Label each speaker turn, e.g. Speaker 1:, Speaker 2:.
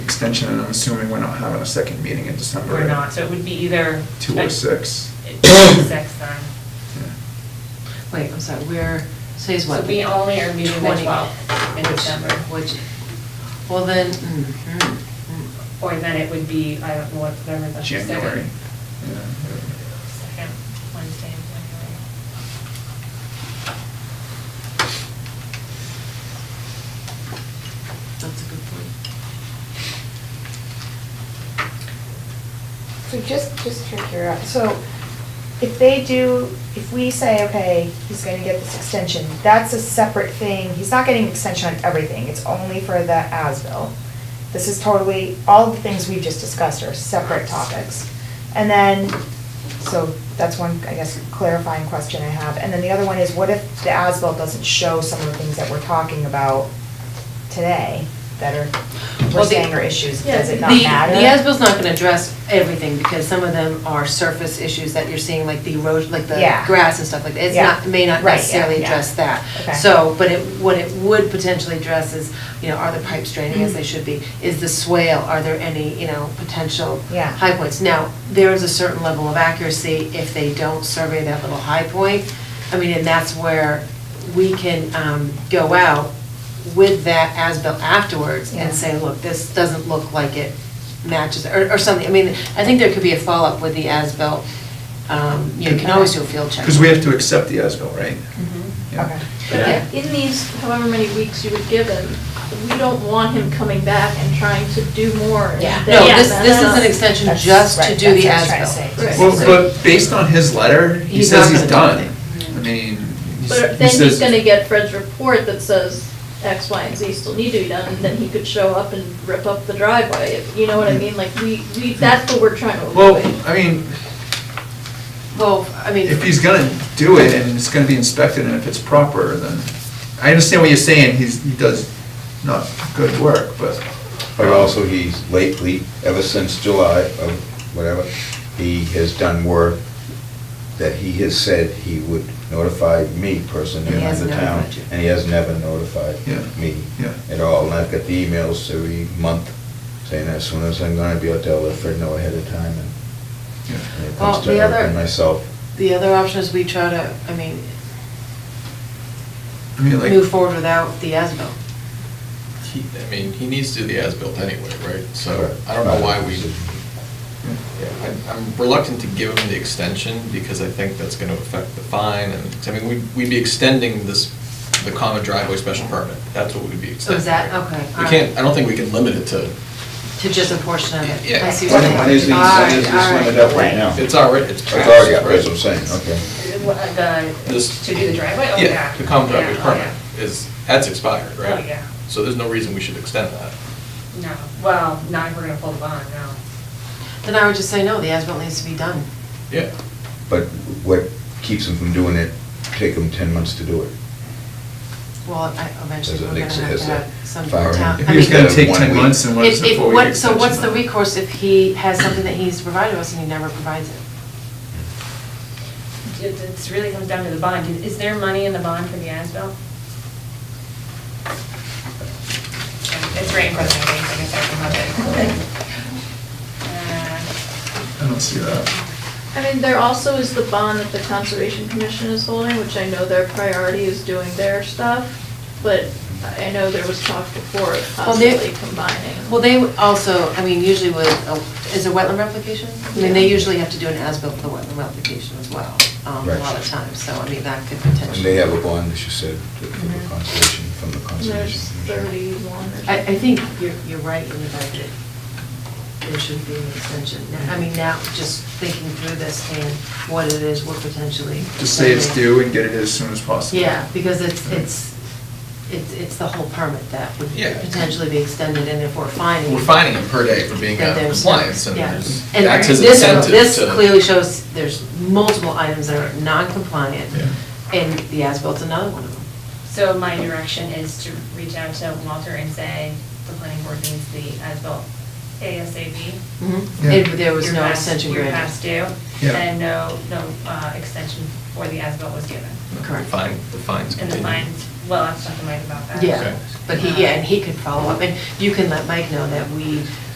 Speaker 1: extension, and I'm assuming we're not having a second meeting in December.
Speaker 2: We're not, so it would be either.
Speaker 1: Two or six.
Speaker 2: It'd be Six then.
Speaker 1: Yeah.
Speaker 3: Wait, I'm sorry, we're, today's what?
Speaker 2: So we only are meeting the
Speaker 3: 20,
Speaker 2: 12th in
Speaker 3: which-
Speaker 2: December.
Speaker 3: Which, well then, mm, mm, mm.
Speaker 2: Or then it would be, I don't know, what whatever the second.
Speaker 1: January.
Speaker 2: Second Wednesday in January.
Speaker 3: that's a good point.
Speaker 4: So just, just for curiosity, so if they do, if we say, okay, he's gonna get this extension, that's a separate thing. He's not getting an extension on everything, it's only for the ASBIL. This is totally, all the things we've just discussed are separate topics. And then, so that's one, I guess, clarifying question I have. And then the other one is, what if the ASBIL doesn't show some of the things that we're talking about today that are, we're
Speaker 3: Well, the-
Speaker 4: saying are issues? Does it not
Speaker 3: The-
Speaker 4: matter?
Speaker 3: The ASBIL's not gonna address everything, because some of them are surface issues that you're seeing, like the erosion, like the
Speaker 4: Yeah.
Speaker 3: grass and stuff like that. It's
Speaker 4: Yeah.
Speaker 3: not, may not
Speaker 4: Right, yeah,
Speaker 3: necessarily
Speaker 4: yeah.
Speaker 3: address that.
Speaker 4: Okay.
Speaker 3: So, but it, what it would potentially address is, you know, are the pipes draining
Speaker 4: Mm-hmm.
Speaker 3: as they should be? Is the swale, are there any, you know, potential
Speaker 4: Yeah.
Speaker 3: high points? Now, there is a certain level of accuracy if they don't survey that little high point. I mean, and that's where we can um, go out with that as-built afterwards
Speaker 4: Yeah.
Speaker 3: and say, look, this doesn't look like it matches, or, or something. I mean, I think there could be a follow-up with the as-built. Um, You can always do a field check.
Speaker 1: Because we have to accept the ASBIL, right? Yeah.
Speaker 4: Okay.
Speaker 3: Yeah.
Speaker 5: But in these however many weeks you would give him, we don't want him coming back and trying to do more. and
Speaker 4: Yeah.
Speaker 3: No,
Speaker 5: then-
Speaker 3: this, this is an
Speaker 5: That's-
Speaker 3: extension
Speaker 4: That's
Speaker 3: just to
Speaker 4: right,
Speaker 3: do the
Speaker 4: that's what I was
Speaker 3: as-built.
Speaker 4: trying to say.
Speaker 1: Well, but based on his letter, he
Speaker 3: He's
Speaker 1: says
Speaker 3: not
Speaker 1: he's
Speaker 3: gonna
Speaker 1: done.
Speaker 3: do
Speaker 1: I mean. he s- he
Speaker 5: But then
Speaker 1: says-
Speaker 5: he's gonna get Fred's report that says X, Y, and Z still need to be done, and then he could show up and rip up the driveway, you know what I mean? Like, we, we, that's what we're trying to
Speaker 1: Well,
Speaker 5: avoid.
Speaker 1: I mean,
Speaker 3: Well, I mean.
Speaker 1: if he's gonna do it and it's gonna be inspected and if it's proper, then, I understand what you're saying, he's, he does not good work, but.
Speaker 6: But also, he's lately, ever since July of whatever, he has done work that he has said he would notify me personally
Speaker 1: He
Speaker 6: and the
Speaker 3: hasn't
Speaker 6: town,
Speaker 3: notified you.
Speaker 6: and he has never notified
Speaker 1: Yeah,
Speaker 6: me
Speaker 1: yeah.
Speaker 6: at all. And I've got the emails every month saying as soon as I'm gonna be out there, let Fred know ahead of time, and
Speaker 1: Yeah.
Speaker 6: and it
Speaker 3: Well,
Speaker 6: comes to
Speaker 3: the
Speaker 6: her
Speaker 3: other-
Speaker 6: and myself.
Speaker 3: The other option is we try to, I mean,
Speaker 1: I mean, like.
Speaker 3: move forward without the ASBIL.
Speaker 7: He, I mean, he needs to do the as-built anyway, right? So
Speaker 6: Correct.
Speaker 7: I don't know why we,
Speaker 1: Yeah.
Speaker 7: yeah, I- I'm reluctant to give him the extension because I think that's going to affect the fine and, I mean, we'd, we'd be extending this, the common driveway special permit. That's what we'd be
Speaker 3: Oh,
Speaker 7: extending.
Speaker 3: is that,
Speaker 7: right?
Speaker 3: okay.
Speaker 7: We
Speaker 3: all
Speaker 7: can't,
Speaker 3: right.
Speaker 7: I don't think we can limit it to,
Speaker 3: To just a portion of it.
Speaker 7: Yeah.
Speaker 3: I see what
Speaker 6: When
Speaker 3: you're
Speaker 6: when is
Speaker 3: saying.
Speaker 6: these,
Speaker 3: All
Speaker 6: when is
Speaker 3: right,
Speaker 6: this
Speaker 3: all right.
Speaker 6: limited up right now?
Speaker 7: it's already, it's
Speaker 6: It's
Speaker 7: passed.
Speaker 6: already up,
Speaker 7: right?
Speaker 6: that's what I'm saying, okay.
Speaker 7: This-
Speaker 2: uh, The, to do the driveway, oh, yeah.
Speaker 7: Yeah, the common driveway
Speaker 2: Yeah, oh,
Speaker 7: permit
Speaker 2: yeah.
Speaker 7: is, that's expired,
Speaker 2: Oh,
Speaker 7: right?
Speaker 2: yeah.
Speaker 7: So there's no reason we should extend that.
Speaker 2: No, well, not if we're gonna pull the bond, no.
Speaker 3: Then I would just say, no, the as-built needs to be done.
Speaker 7: Yeah.
Speaker 6: But what keeps him from doing it, take him 10 months to do it.
Speaker 3: Well, I- eventually
Speaker 6: As an
Speaker 3: we're gonna
Speaker 6: ex-
Speaker 3: have to
Speaker 6: as a
Speaker 3: have some
Speaker 6: fire
Speaker 3: town.
Speaker 6: engine.
Speaker 1: If
Speaker 3: I
Speaker 1: he was
Speaker 3: mean,
Speaker 1: gonna take
Speaker 6: One
Speaker 1: ten
Speaker 6: week.
Speaker 1: months and what's
Speaker 3: if- if
Speaker 1: before we
Speaker 3: what-
Speaker 1: get
Speaker 3: So what's
Speaker 1: extension
Speaker 3: the
Speaker 1: on it?
Speaker 3: recourse if he has something that he's provided us and he never provides it?
Speaker 2: It, it's really comes down to the bond. Is- Is there money in the bond for the ASBIL? It's right in front of me, I guess I can have Uh,
Speaker 1: I don't see that.
Speaker 5: I mean, there also is the bond that the Conservation Commission is holding, which I know their priority is doing their stuff, but I know there was talk before of
Speaker 3: Well, they-
Speaker 5: possibly combining.
Speaker 3: Well, they would also, I mean, usually with, a- is it wetland replication? I mean, they
Speaker 5: Yeah.
Speaker 3: usually have to do an as-built for the wetland replication as well, um, a
Speaker 6: Right.
Speaker 3: lot of times, so I mean, that could
Speaker 6: And
Speaker 3: potentially.
Speaker 6: they have a bond, as you said, to- for the
Speaker 3: Mhm.
Speaker 6: conservation, from the
Speaker 5: There's
Speaker 6: conservation. commission.
Speaker 5: thirty-one or something.
Speaker 3: I, I think you're, you're right in the fact that there should be an extension. I mean, now, just thinking through this and what it is, we're potentially.
Speaker 1: Just say it's
Speaker 3: extending.
Speaker 1: due and get it as soon as possible.
Speaker 3: Yeah, because it's, it's, it's, it's the whole permit that would
Speaker 7: Yeah.
Speaker 3: potentially be extended, and if we're finding.
Speaker 7: We're fining him per day for being
Speaker 3: that
Speaker 7: out of
Speaker 3: there's-
Speaker 7: compliance, and
Speaker 3: yeah.
Speaker 7: there's-
Speaker 3: And
Speaker 7: that's his
Speaker 3: this-
Speaker 7: incentive
Speaker 3: This
Speaker 7: to-
Speaker 3: clearly shows there's multiple items that are non-compliant,
Speaker 1: Yeah.
Speaker 3: and the as-bilt's another one of them.
Speaker 2: my So my direction is to reach out to Walter and say, the planning board needs the ASBIL ASAP.
Speaker 1: Yeah.
Speaker 3: And there was
Speaker 2: Your
Speaker 3: no
Speaker 2: past-
Speaker 3: extension
Speaker 2: Your
Speaker 3: granted.
Speaker 2: past due,
Speaker 1: Yeah.
Speaker 2: and no, no uh, extension for the ASBIL was given.
Speaker 3: Correct.
Speaker 7: Fine, the fines
Speaker 2: And the
Speaker 7: continue.
Speaker 2: fines well, I've talked to Mike about that.
Speaker 7: Okay.
Speaker 3: Yeah, but he, yeah, and he could follow up, and you can let Mike know that we